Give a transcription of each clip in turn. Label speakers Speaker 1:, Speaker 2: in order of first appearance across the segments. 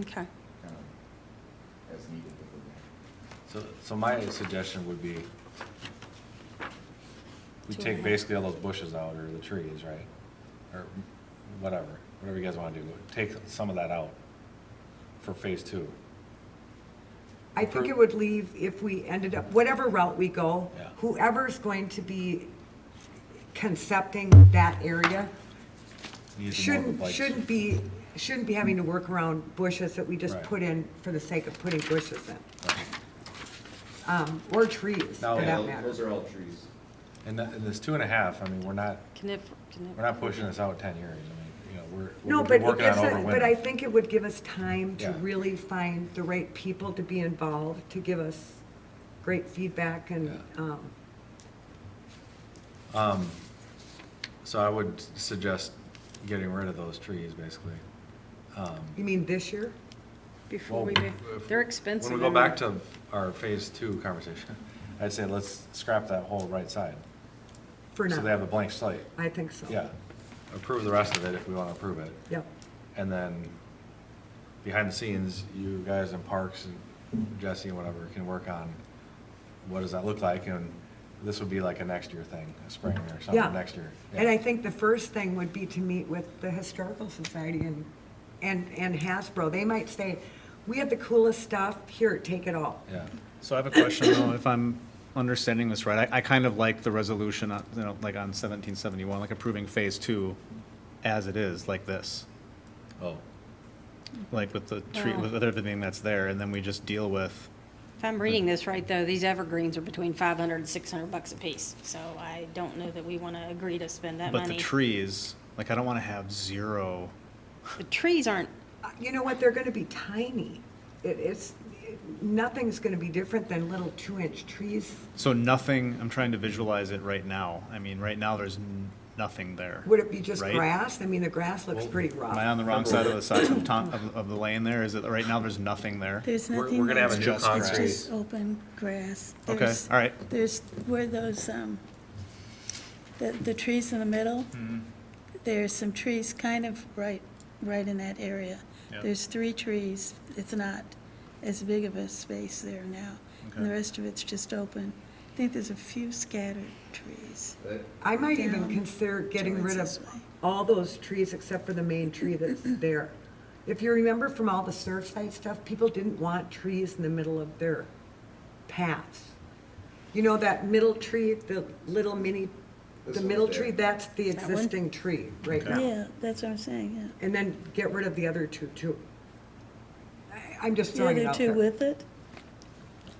Speaker 1: Okay.
Speaker 2: um, as needed within that.
Speaker 3: So, so my suggestion would be, we
Speaker 1: Two and
Speaker 3: take
Speaker 1: a half.
Speaker 3: basically all those bushes out, or the trees, right? Or whatever, whatever you guys wanna do, take some of that out for phase two.
Speaker 4: I think it would leave, if we ended up, whatever route we go,
Speaker 3: Yeah.
Speaker 4: whoever's going to be concepting that area
Speaker 3: Use the more
Speaker 4: shouldn't,
Speaker 3: like-
Speaker 4: shouldn't be, shouldn't be having to work around bushes that we just
Speaker 3: Right.
Speaker 4: put in for the sake of putting bushes in,
Speaker 3: Right.
Speaker 4: um, or trees,
Speaker 3: No.
Speaker 4: for
Speaker 3: Yeah,
Speaker 4: that
Speaker 2: Those-
Speaker 4: matter.
Speaker 2: Those are all trees.
Speaker 3: And that, and this two and a half, I mean, we're not,
Speaker 1: Can it, can it?
Speaker 3: we're not pushing this out ten years, I mean, you know, we're,
Speaker 4: No,
Speaker 3: we're
Speaker 4: but it
Speaker 3: working on
Speaker 4: gives,
Speaker 3: over
Speaker 4: it-
Speaker 3: winter.
Speaker 4: but I think it would give us time to
Speaker 3: Yeah.
Speaker 4: really find the right people to be involved, to give us great feedback and,
Speaker 3: Yeah.
Speaker 4: um,
Speaker 3: Um, so I would suggest getting rid of those trees, basically. Um,
Speaker 4: you mean this year?
Speaker 1: Before we,
Speaker 3: Well,
Speaker 1: do-
Speaker 3: if-
Speaker 1: they're expensive.
Speaker 3: When we go
Speaker 1: and-
Speaker 3: back to our phase two conversation, I'd say let's scrap that whole right side.
Speaker 4: For
Speaker 3: So they have
Speaker 4: now,
Speaker 3: a blank slate.
Speaker 4: I think so.
Speaker 3: Yeah. Approve the rest of it if we want to approve it.
Speaker 4: Yep.
Speaker 3: And then behind the scenes, you guys in parks and Jesse and whatever can work on what does that look like? And this would be like a next year thing, a spring or
Speaker 4: Yeah.
Speaker 3: something next year.
Speaker 4: And I think the first thing would be to meet with the Historical Society and, and, and Hasbro. They might say, we have the coolest stuff, here, take it all.
Speaker 3: Yeah.
Speaker 5: So I have a question though, if I'm understanding this right, I, I kind of like the resolution, uh, you know, like on seventeen seventy-one, like approving phase two as it is, like this.
Speaker 3: Oh,
Speaker 5: Like with the tree,
Speaker 1: Wow.
Speaker 5: with everything that's there, and then we just deal with,
Speaker 6: If I'm reading this right, though, these evergreens are between 500 and 600 bucks a piece, so I don't know that we want to agree to spend that
Speaker 5: but the
Speaker 6: money.
Speaker 5: trees, like I don't wanna have zero.
Speaker 6: The trees aren't,
Speaker 4: Uh, You know what, they're gonna be tiny. It, it's, it- nothing's gonna be different than little two-inch trees.
Speaker 5: So nothing, I'm trying to visualize it right now. I mean, right now, there's n- nothing there.
Speaker 4: Would it be just
Speaker 5: right?
Speaker 4: grass? I mean, the grass looks
Speaker 3: Well,
Speaker 4: pretty
Speaker 5: Am I
Speaker 4: rough.
Speaker 5: on the wrong side of the side of, Tom- of, of the lane there? Is it, right now, there's nothing there?
Speaker 7: There's
Speaker 3: We're-
Speaker 7: nothing.
Speaker 3: we're gonna have a
Speaker 7: there.
Speaker 3: new
Speaker 7: It's
Speaker 3: concrete.
Speaker 7: just open grass.
Speaker 5: Okay,
Speaker 7: There's-
Speaker 5: all right.
Speaker 7: There's where those, um, the, the trees in the middle, there's some trees kind of right, right in that area.
Speaker 5: Yep.
Speaker 7: There's three trees. It's not as big of a space there now. And the
Speaker 5: Okay.
Speaker 7: rest of it's just open. I think there's a few scattered trees.
Speaker 2: That-
Speaker 4: I might even
Speaker 7: Down
Speaker 4: consider getting rid of
Speaker 7: towards this way.
Speaker 4: all those trees except for the main tree that's there. If you remember from all the Surfside stuff, people didn't want trees in the middle of their paths. You know that middle tree, the little mini,
Speaker 2: This
Speaker 4: the
Speaker 2: one's
Speaker 4: middle
Speaker 2: there.
Speaker 4: tree, that's the
Speaker 6: one?
Speaker 4: existing tree right now.
Speaker 7: Yeah, that's what I'm saying, yeah.
Speaker 4: And then get rid of the other two too. I- I'm just
Speaker 7: The
Speaker 4: throwing it
Speaker 7: other
Speaker 4: out
Speaker 7: two
Speaker 4: there.
Speaker 7: with it?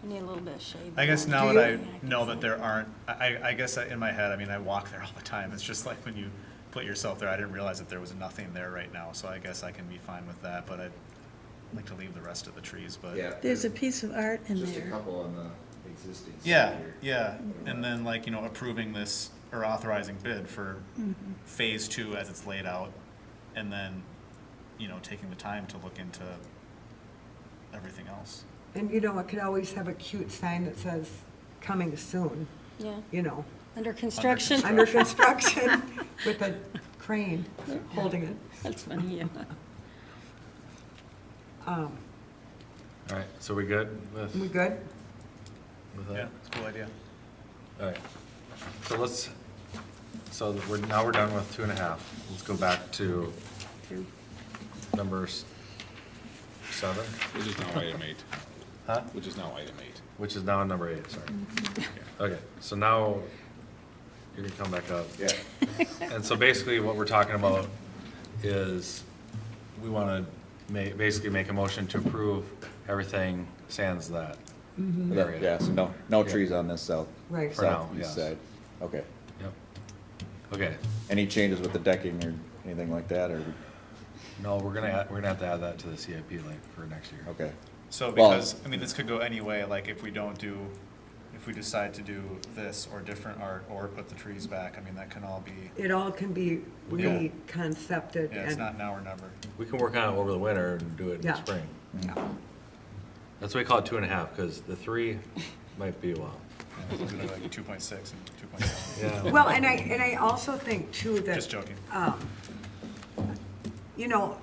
Speaker 6: you need a little bit of shade.
Speaker 5: I guess
Speaker 6: there.
Speaker 5: now
Speaker 4: Do
Speaker 5: that I
Speaker 6: you-
Speaker 5: know that there aren't, I, I- I guess I- in my head, I mean, I walk there all the time. It's just like when you put yourself there, I didn't realize that there was nothing there right now, so I guess I can be fine with that, but I'd like to leave the rest of the trees, but.
Speaker 2: Yeah.
Speaker 7: There's a piece of art in
Speaker 2: Just a
Speaker 7: there.
Speaker 2: couple on the existing. side
Speaker 5: Yeah,
Speaker 2: here.
Speaker 5: yeah, and then like, you know, approving this or authorizing bid for phase two as it's laid out. And then, you know, taking the time to look into everything else.
Speaker 4: And you know, I could always have a cute sign that says, coming soon,
Speaker 6: Yeah,
Speaker 4: you know,
Speaker 6: under construction.
Speaker 4: under construction with a crane holding it.
Speaker 6: That's funny, yeah.
Speaker 4: Um,
Speaker 3: all right, so we good with,
Speaker 4: We good?
Speaker 3: with that?
Speaker 5: it's a cool idea.
Speaker 3: All right, so let's, so we're, now we're done with two and a half. Let's go back to number s- seven,
Speaker 8: Which is now item eight,
Speaker 3: huh?
Speaker 8: which is now item eight.
Speaker 3: Which is now number eight, sorry. Okay, so now you're gonna come back up.
Speaker 2: Yeah,
Speaker 3: And so basically what we're talking about is we wanna ma- basically make a motion to approve everything sans that.
Speaker 2: Mm-hmm.
Speaker 3: area.
Speaker 9: Yeah, so no, no
Speaker 3: Yeah.
Speaker 9: trees on this south,
Speaker 4: Right.
Speaker 3: For now,
Speaker 9: southeast
Speaker 3: yes.
Speaker 9: side. Okay.
Speaker 3: Yep. Okay,
Speaker 9: Any changes with the decking or anything like that, or,
Speaker 3: no, we're gonna, add- we're gonna have to add that to the CIP link for next year.
Speaker 9: okay.
Speaker 5: So
Speaker 9: Well-
Speaker 5: because, I mean, this could go any way, like if we don't do, if we decide to do this or different art or put the trees back, I mean, that can all be,
Speaker 4: It all can be
Speaker 3: Yeah.
Speaker 4: reconcepted
Speaker 5: yeah, it's not
Speaker 4: and,
Speaker 5: now or never.
Speaker 3: We can work on it over the winter and do it in the
Speaker 4: Yeah.
Speaker 3: spring.
Speaker 4: yeah.
Speaker 3: That's why we call it two and a half, because the three might be a while.
Speaker 5: Yeah, we could do like two point six and two point seven.
Speaker 3: Yeah.
Speaker 4: Well, and I, and I also think too that.
Speaker 5: Just joking.
Speaker 4: um, You know,